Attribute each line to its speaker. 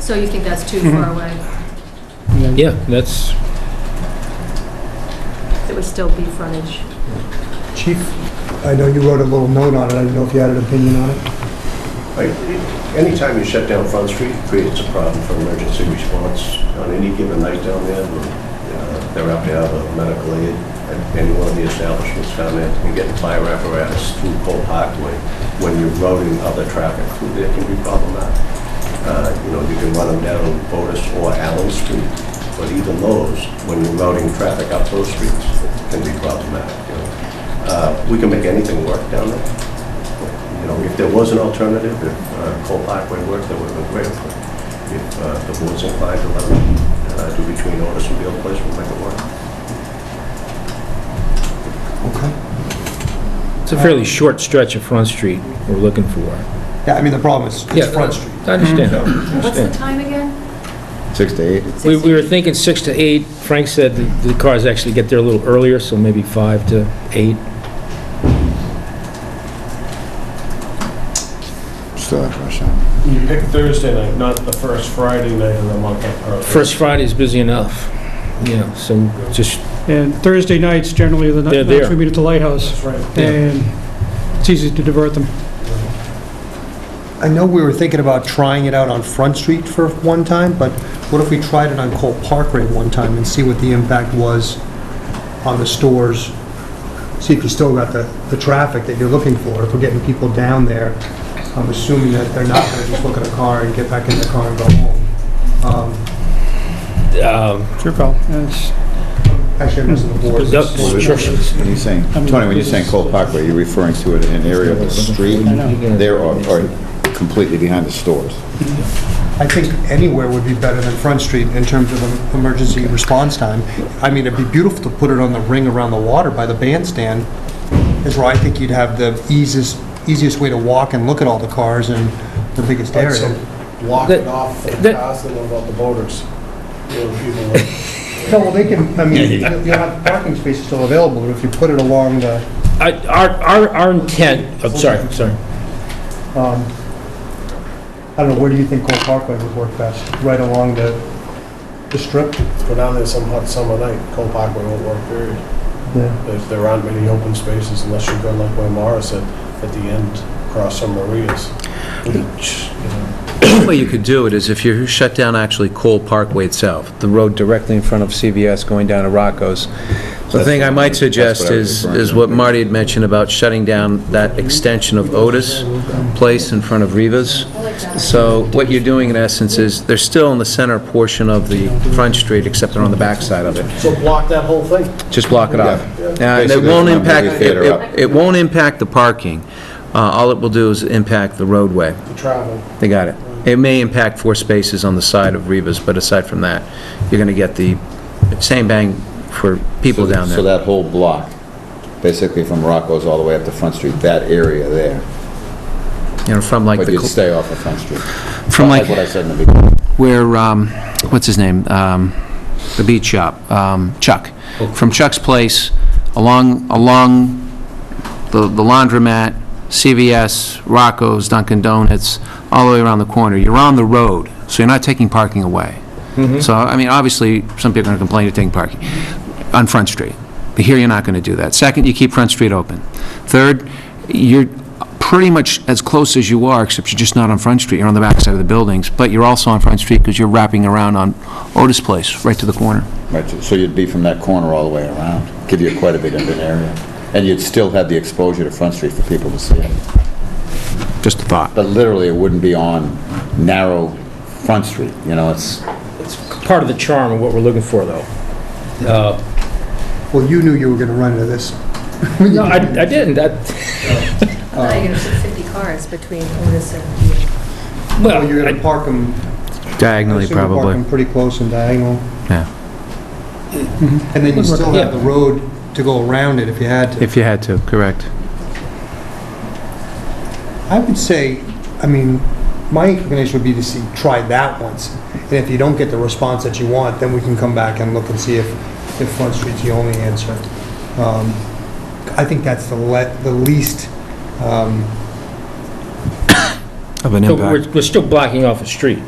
Speaker 1: So you think that's too far
Speaker 2: Mm-hmm.
Speaker 1: away?
Speaker 3: Yeah, that's,
Speaker 1: It would still be frontage.
Speaker 4: Chief, I know you wrote a little note on it, I didn't know if you had an opinion on it.
Speaker 5: Like, Anytime you shut down Front Street, it creates a problem for emergency response on any given night down there. Uh, They're out there, the medical aid, at any one of the establishments down there, you get fire apparatus through Cole Parkway. When you're routing other traffic through there, it can be problematic. Uh, You know, you can run them down Otis or Allen Street, but even those, when you're routing traffic up those streets, it can be problematic, you know. Uh, We can make anything work down there you know, if there was an alternative, if uh, Cole Parkway worked, that would have been great. But If uh, the board's inclined to let them uh, do between orders and Beal Place, we'll make it work.
Speaker 4: Okay.
Speaker 3: it's a fairly short stretch of Front Street we're looking for.
Speaker 4: Yeah, I mean, the problem is,
Speaker 3: Yeah.
Speaker 4: it's Front Street.
Speaker 3: I understand.
Speaker 1: What's the
Speaker 3: understand.
Speaker 1: time again?
Speaker 2: Six to eight.
Speaker 3: We we were thinking six to eight. Frank said that the cars actually get there a little earlier, so maybe five to eight.
Speaker 2: Still have rush hour.
Speaker 6: You pick Thursday night, not the first Friday night of the month. or-
Speaker 3: First Friday's busy enough, you know, so just,
Speaker 7: And Thursday nights generally are the
Speaker 3: They're
Speaker 7: night-
Speaker 3: there.
Speaker 7: nights we meet at the lighthouse,
Speaker 6: That's right.
Speaker 3: Yeah.
Speaker 7: and it's easy to divert them.
Speaker 4: I know we were thinking about trying it out on Front Street for one time, but what if we tried it on Cole Parkway one time and see what the impact was on the stores? See if you still got the, the traffic that you're looking for, if we're getting people down there. I'm assuming that they're not gonna just look at a car and get back in the car and go home. Um,
Speaker 3: um,
Speaker 7: It's your call. And it's-
Speaker 4: Actually, I'm missing the board.
Speaker 3: That's- Sure, sure.
Speaker 2: When you're saying,
Speaker 7: I mean,
Speaker 2: Tony, when you're saying Cole Parkway, you're referring to it in an area of the street there or or completely behind the stores?
Speaker 4: I think anywhere would be better than Front Street in terms of em- emergency response time. I mean, it'd be beautiful to put it on the ring around the water by the bandstand, is where I think you'd have the easiest, easiest way to walk and look at all the cars and the biggest area.
Speaker 8: block
Speaker 3: it
Speaker 8: it off from
Speaker 3: that-
Speaker 8: cars that about the boaters. You know, people like-
Speaker 4: No, well, they can, I mean, you'll have parking spaces still available, but if you put it along the,
Speaker 3: I- Our our our intent, I'm sorry, I'm sorry.
Speaker 4: um, I don't know, where do you think Cole Parkway would work best? Right along the, the strip?
Speaker 8: Let's go down there some hot summer night, Cole Parkway won't work, period.
Speaker 4: Yeah.
Speaker 8: If there aren't many open spaces, unless you're going like where Mara said, at the end, across some marias. Which, you know,
Speaker 9: One way you could do it is if you shut down actually Cole Parkway itself, the road directly in front of CVS going down to Rocco's. The thing I might suggest is, is what Marty had mentioned about shutting down that extension of Otis Place in front of Rivas. So what you're doing in essence is, they're still in the center portion of the front street, except they're on the backside of it.
Speaker 8: So block that whole thing.
Speaker 9: Just block it off.
Speaker 2: Yeah.
Speaker 9: Now, and it
Speaker 2: Basically, from
Speaker 9: won't
Speaker 2: the
Speaker 9: impact,
Speaker 2: movie
Speaker 9: it-
Speaker 2: theater up.
Speaker 9: it it won't impact the parking. Uh, All it will do is impact the roadway.
Speaker 8: The travel.
Speaker 9: They got it. It may impact four spaces on the side of Rivas, but aside from that, you're going to get the same bang for people down
Speaker 2: So
Speaker 9: there.
Speaker 2: that whole block, basically from Rocco's all the way up to Front Street, that area there,
Speaker 9: You know, from like,
Speaker 2: but
Speaker 9: the
Speaker 2: you'd
Speaker 9: cl-
Speaker 2: stay off of Front Street.
Speaker 9: from
Speaker 2: That's what
Speaker 9: like,
Speaker 2: I said in the beginning.
Speaker 9: where, um, what's his name? Um, The beach shop, um, Chuck. From Chuck's place, along, along the the laundromat, CVS, Rocco's, Dunkin' Donuts, all the way around the corner. You're on the road, so you're not taking parking away. So, I mean, obviously, some people are going to complain you're taking parking on Front Street. But here, you're not going to do that. Second, you keep Front Street open. Third, you're pretty much as close as you are, except you're just not on Front Street. You're on the backside of the buildings, but you're also on Front Street because you're wrapping around on Otis Place, right to the corner.
Speaker 2: Right, so you'd be from that corner all the way around, give you quite a bit of an area. And you'd still have the exposure to Front Street for people to see it.
Speaker 9: Just a thought.
Speaker 2: But literally, it wouldn't be on narrow Front Street, you know, it's,
Speaker 3: It's part of the charm of what we're looking for, though. Uh,
Speaker 4: Well, you knew you were gonna run into this.
Speaker 3: No, I I didn't, that,
Speaker 1: I thought
Speaker 2: Oh.
Speaker 1: you were gonna put 50 cars between Otis and...
Speaker 4: Well, Oh, you're
Speaker 3: well, I-
Speaker 4: gonna park them
Speaker 9: Diagonally,
Speaker 4: Assume we're
Speaker 9: probably.
Speaker 4: parking pretty close and diagonal.
Speaker 9: Yeah.
Speaker 4: And then you still
Speaker 3: Yeah.
Speaker 4: have the road to go around it if you had to.
Speaker 9: If you had to, correct.
Speaker 4: I would say, I mean, my inclination would be to see, try that once. And if you don't get the response that you want, then we can come back and look and see if, if Front Street's the only answer. Um, I think that's the le, the least, um,
Speaker 9: Of an
Speaker 3: so we're we're still blocking off a street.